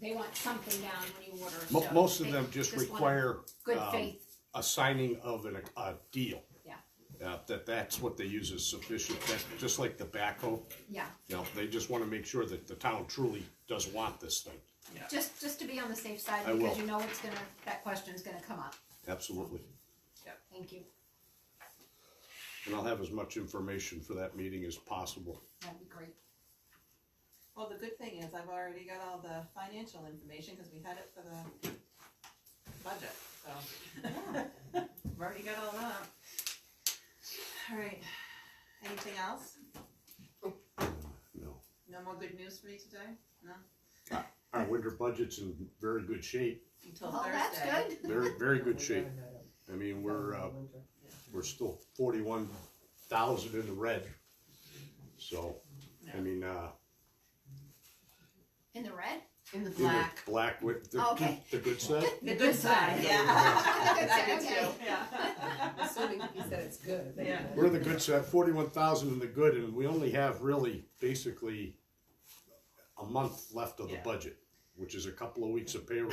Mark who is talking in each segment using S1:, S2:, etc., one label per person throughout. S1: they want something down when you order.
S2: Mo-
S1: so
S2: most of
S1: they
S2: them just
S1: want
S2: require,
S1: Good
S2: um,
S1: faith,
S2: a signing of an, a deal.
S1: Yeah.
S2: Uh, that, that's what they use as sufficient, that, just like the backhoe,
S1: yeah,
S2: you know, they just wanna make sure that the town truly does want this thing,
S1: just, just to be on the safe side,
S2: I
S1: because
S2: will.
S1: you know it's gonna, that question's gonna come up,
S2: absolutely.
S1: thank you,
S2: And I'll have as much information for that meeting as possible.
S1: that'd be great.
S3: Well, the good thing is I've already got all the financial information, cause we had it for the budget, so. I've already got all that. Alright, anything else?
S2: No.
S3: No more good news for me today? No?
S2: Our winter budget's in very good shape,
S3: Until
S1: Well,
S3: Thursday.
S1: Oh, that's good,
S2: very, very
S4: Oh,
S2: good shape. I mean, we're, uh, we're still forty-one thousand in the red. So, I mean, uh,
S1: in the red,
S4: In the
S2: in the
S4: black.
S2: black with the,
S1: Okay.
S2: the good side.
S3: The good side, yeah. I did too,
S1: Okay.
S3: yeah.
S4: Assuming he said it's good. then-
S3: Yeah.
S2: We're the good side, forty-one thousand in the good, and we only have really basically a month left of the
S3: Yeah.
S2: budget, which is a couple of weeks of payroll.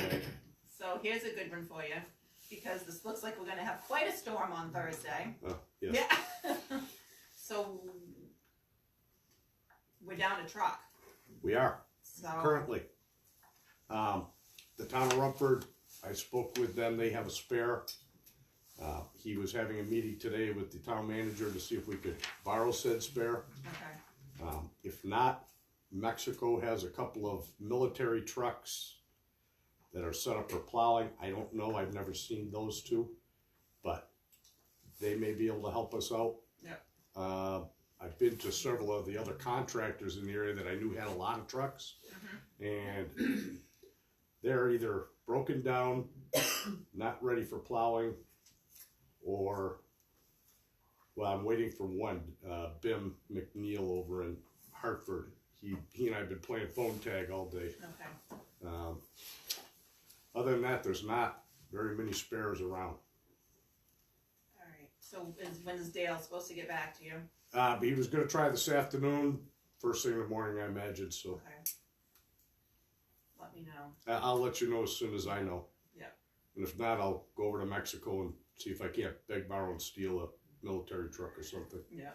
S3: So here's a good one for you, because this looks like we're gonna have quite a storm on Thursday.
S2: Uh, yes.
S3: Yeah. So, we're down a truck,
S2: We are
S3: so.
S2: currently. Um, the town of Rumford, I spoke with them, they have a spare. Uh, he was having a meeting today with the town manager to see if we could borrow said spare.
S3: Okay.
S2: Um, if not, Mexico has a couple of military trucks that are set up for plowing. I don't know, I've never seen those two, but they may be able to help us out.
S3: Yeah.
S2: Uh, I've been to several of the other contractors in the area that I knew had a lot of trucks. And they're either broken down, not ready for plowing, or well, I'm waiting for one, uh, Bim McNeil over in Hartford. He, he and I have been playing phone tag all day.
S3: Okay.
S2: Um, other than that, there's not very many spares around.
S3: Alright, so is, when is Dale supposed to get back to you?
S2: Uh, but he was gonna try this afternoon, first thing in the morning, I imagine, so
S3: Okay. Let me know.
S2: I, I'll let you know as soon as I know.
S3: Yeah.
S2: And if not, I'll go over to Mexico and see if I can't beg, borrow, and steal a military truck or something.
S3: Yeah.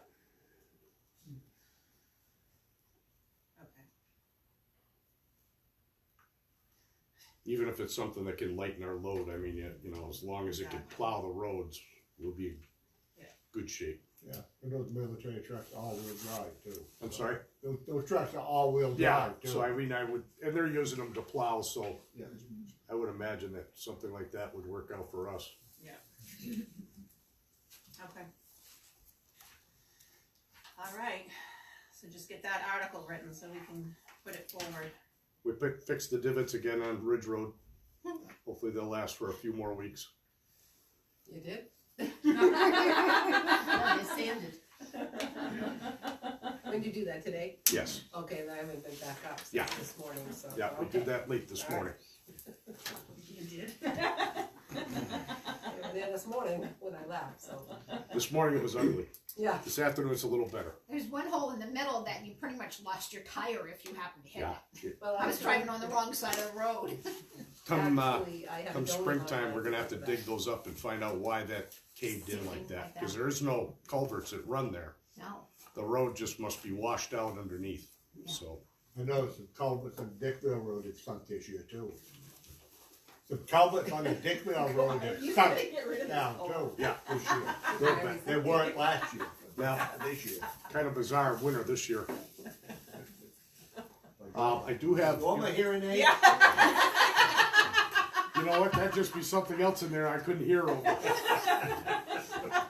S3: Okay,
S2: Even if it's something that can lighten our load, I mean, you you know, as long as it can
S3: Exactly.
S2: plow the roads, we'll be in
S3: Yeah.
S2: good shape.
S5: Yeah, and those military trucks are all-wheel drive too.
S2: I'm sorry?
S5: Those, those trucks are all-wheel
S2: Yeah,
S5: drive too.
S2: so I mean, I would, and they're using them to plow, so
S5: Yeah.
S2: I would imagine that something like that would work out for us.
S3: okay. Alright, so just get that article written so we can put it forward.
S2: We pick, fixed the divots again on Ridge Road. Hopefully they'll last for a few more weeks.
S4: You did? No, they sanded. When did you do that, today?
S2: Yes,
S4: Okay, then I haven't been back up
S2: Yeah.
S4: since this morning, so.
S2: yeah, we did that late this morning.
S3: You did?
S4: They were there this morning when I left, so,
S2: This morning it was ugly.
S4: yeah.
S2: This afternoon it's a little better.
S1: there's one hole in the middle that you pretty much lost your tire if you happen to hit
S2: Yeah.
S1: it.
S4: Well,
S1: I was driving on the wrong side of the road.
S2: Come, uh,
S4: Actually, I have
S2: come
S4: a donut
S2: springtime, we're gonna have to
S4: on my-
S2: dig those up and find out why that caved in like that, cause there is no culverts that run there.
S1: No,
S2: The road just must be washed out underneath, so.
S5: I noticed some culverts on Dickville Road that sunk this year too. Some culverts on the Dickville Road that sunk down too.
S2: Yeah.
S5: This year. They weren't last year,
S2: Now,
S5: this year.
S2: kind of bizarre winter this year. Uh, I do have,
S5: What am I
S2: you
S5: hearing, Nate?
S3: Yeah.
S2: know what, that'd just be something else in there I couldn't hear over. I-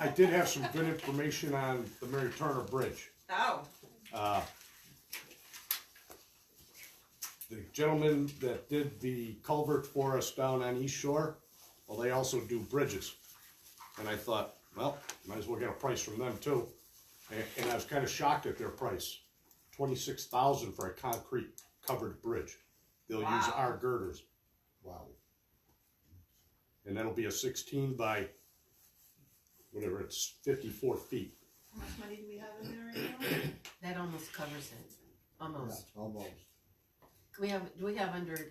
S2: I did have some good information on the Mary Turner Bridge.
S3: Oh,
S2: Uh, The gentleman that did the culvert for us down on East Shore, well, they also do bridges. And I thought, well, might as well get a price from them too. And, and I was kinda shocked at their price, twenty-six thousand for a concrete covered bridge. They'll use
S3: Wow.
S2: our girders,
S5: Wow.
S2: and that'll be a sixteen by, whatever, it's fifty-four feet.
S3: how much money do we have in there right now?
S6: That almost covers it,
S5: Yeah,
S6: almost.
S5: Almost.
S6: we have, do we have under